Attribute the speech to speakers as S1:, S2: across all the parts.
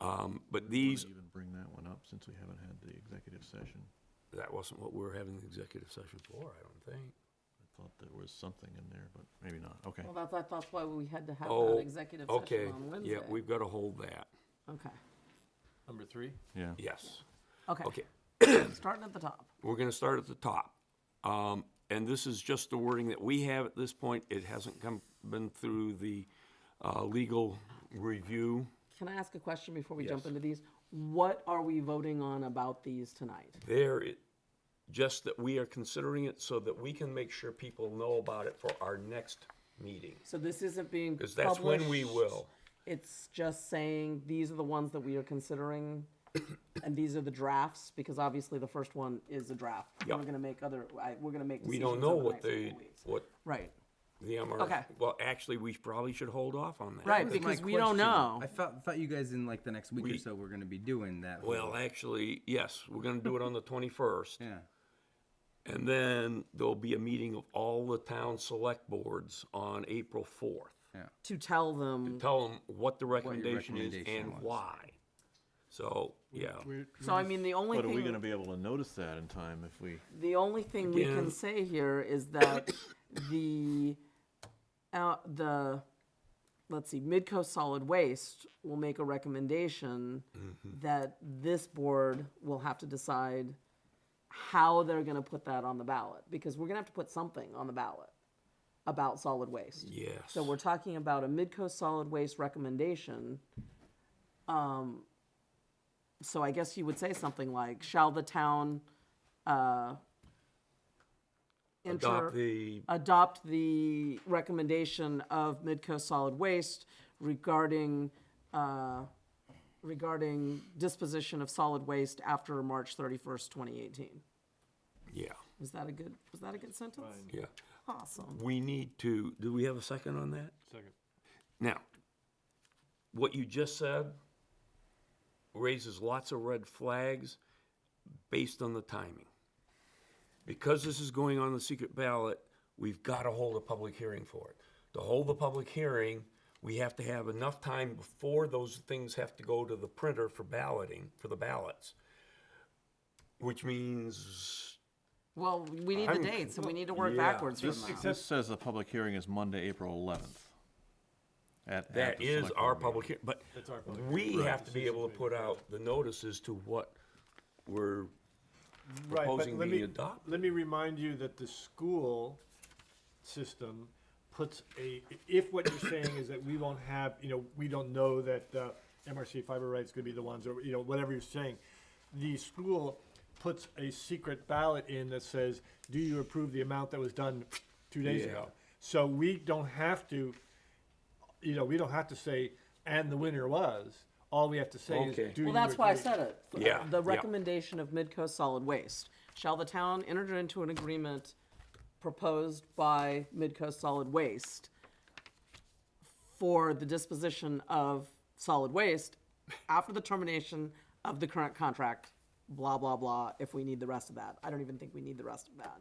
S1: Um, But these,
S2: Even bring that one up since we haven't had the executive session.
S1: that wasn't what we were having the executive session for, I don't think.
S2: I thought there was something in there, but maybe not. Okay.
S3: Well, that's, that's why we had to have
S1: Oh,
S3: that executive
S1: Okay,
S3: session on Wednesday.
S1: yeah, we've got to hold that,
S3: Okay,
S4: Number three?
S2: Yeah.
S1: yes.
S3: okay,
S1: Okay,
S3: starting at the top.
S1: we're going to start at the top. Um, And this is just the wording that we have at this point. It hasn't come, been through the uh, legal review.
S3: Can I ask a question before we
S1: Yes.
S3: jump into these? What are we voting on about these tonight?
S1: There, it- just that we are considering it so that we can make sure people know about it for our next meeting.
S3: So this isn't being
S1: Because
S3: published?
S1: that's when we will.
S3: It's just saying, these are the ones that we are considering, and these are the drafts, because obviously the first one is a draft.
S1: Yep.
S3: We're gonna make other, I, we're gonna make
S1: We
S3: decisions
S1: don't
S3: in
S1: know
S3: the
S1: what
S3: next
S1: the,
S3: couple weeks.
S1: what
S3: Right,
S1: the
S3: Okay.
S1: MRF, well, actually, we probably should hold off on that.
S3: Right,
S1: But-
S3: because-
S5: my
S3: we don't
S5: question.
S3: know.
S5: I thought, thought you guys in like the next week
S1: We-
S5: or so were going to be doing that.
S1: Well,
S5: whole-
S1: actually, yes, we're gonna do it on the twenty-first.
S5: yeah.
S1: And then there'll be a meeting of all the town select boards on April fourth.
S3: to tell them,
S1: Tell them what the recommendation is
S5: recommendation
S1: and
S5: was.
S1: why. So, yeah,
S3: so I mean, the only
S2: But
S3: thing.
S2: are we gonna be able to notice that in time if we?
S3: The only thing we
S1: Again.
S3: can say here is that the, uh, the, let's see, Midco Solid Waste will make a recommendation that this board will have to decide how they're gonna put that on the ballot, because we're gonna have to put something on the ballot about solid waste.
S1: yes.
S3: So we're talking about a Midco solid waste recommendation. Um, So I guess you would say something like, shall the town uh,
S1: Adopt
S3: enter,
S1: the,
S3: adopt the recommendation of Midco solid waste regarding, uh, regarding disposition of solid waste after March 31st, 2018?
S1: yeah,
S3: Was that a good, was that a good sentence?
S1: yeah.
S3: Awesome.
S1: We need to, do we have a second on that?
S4: Second.
S1: Now, what you just said raises lots of red flags based on the timing. Because this is going on the secret ballot, we've got to hold a public hearing for it. To hold the public hearing, we have to have enough time before those things have to go to the printer for balloting, for the ballots. Which means,
S3: Well, we need the
S1: I'm-
S3: dates, and we need to work
S1: Yeah.
S3: backwards from
S2: This,
S3: that.
S2: this says the public hearing is Monday, April eleventh. At, at
S1: that
S2: the
S1: is
S2: select
S1: our
S2: board meeting.
S1: public hearing, but we have to be able to put out the notices to what we're
S6: Right, but
S1: proposing
S6: let
S1: being
S6: me-
S1: adopted.
S6: Let me remind you that the school system puts a, if what you're saying is that we won't have, you know, we don't know that, uh, MRC fiber rights gonna be the ones, or, you know, whatever you're saying, the school puts a secret ballot in that says, do you approve the amount that was done two days
S1: Yeah.
S6: ago? So we don't have to, you know, we don't have to say, and the winner was, all we have to say is, do you
S1: Okay.
S3: Well, that's why I
S6: agree?"
S3: said it.
S1: Yeah,
S3: The
S1: yeah.
S3: recommendation of Midco Solid Waste. Shall the town enter into an agreement proposed by Midco Solid Waste for the disposition of solid waste after the termination of the current contract, blah, blah, blah, if we need the rest of that. I don't even think we need the rest of that.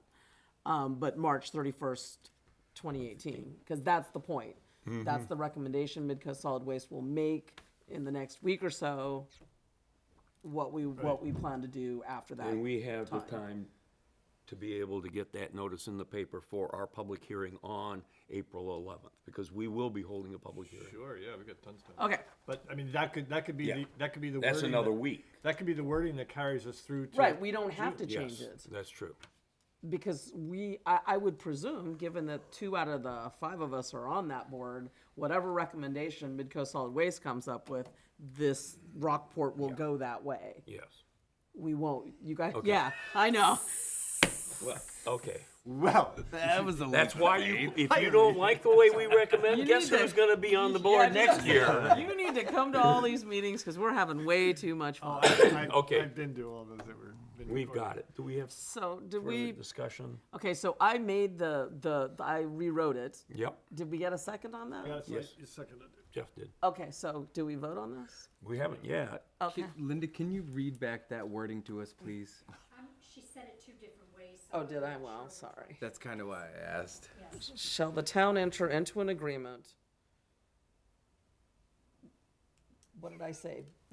S3: Um, but March thirty-first, twenty eighteen, because that's the point.
S1: Mm-hmm.
S3: That's the recommendation Midco Solid Waste will make in the next week or so, what we, what we plan to do after that.
S1: And we have the time to be able to get that notice in the paper for our public hearing on April eleventh, because we will be holding a public hearing.
S4: Sure, yeah, we got tons of time.
S3: Okay,
S6: But I mean, that could that could be
S1: Yeah.
S6: the that could be the
S1: That's
S6: wording
S1: another
S6: that,
S1: week.
S6: That could be the wording that carries us through. To,
S3: right, we don't have to change
S1: Yes,
S3: it.
S1: that's true.
S3: because we, I, I would presume, given that two out of the five of us are on that board, whatever recommendation Midco Solid Waste comes up with, this Rockport will go that way.
S1: Yes.
S3: We won't, you guys, yeah, I know.
S1: Well, okay.
S6: Well,
S5: That was the
S1: That's why you, if you don't like the way we recommend,
S3: You
S1: guess
S3: need to-
S1: who's gonna be on the
S3: Yeah,
S1: board
S3: you-
S1: next year?
S3: You need to come to all these meetings because we're having way too much
S1: Oh,
S3: fun.
S6: I, I,
S1: Okay.
S6: I've been to all those that were. Been
S1: We've
S6: recorded.
S1: got it. Do we have
S3: So did
S1: further
S3: we,
S1: discussion?
S3: okay, so I made the, the, I rewrote it.
S1: Yep,
S3: Did we get a second on that?
S6: That's
S1: Yes.
S6: like a second.
S1: Jeff did.
S3: Okay, so do we vote on this?
S1: We haven't yet.
S3: Okay.
S5: Linda, can you read back that wording to us, please?
S7: Um, she said it two different ways. so
S3: Oh, did I?
S7: I'm not
S3: Well,
S7: sure.
S3: sorry.
S5: That's kind of why I asked.
S7: Yes.
S3: Shall the town enter into an agreement? What did I say?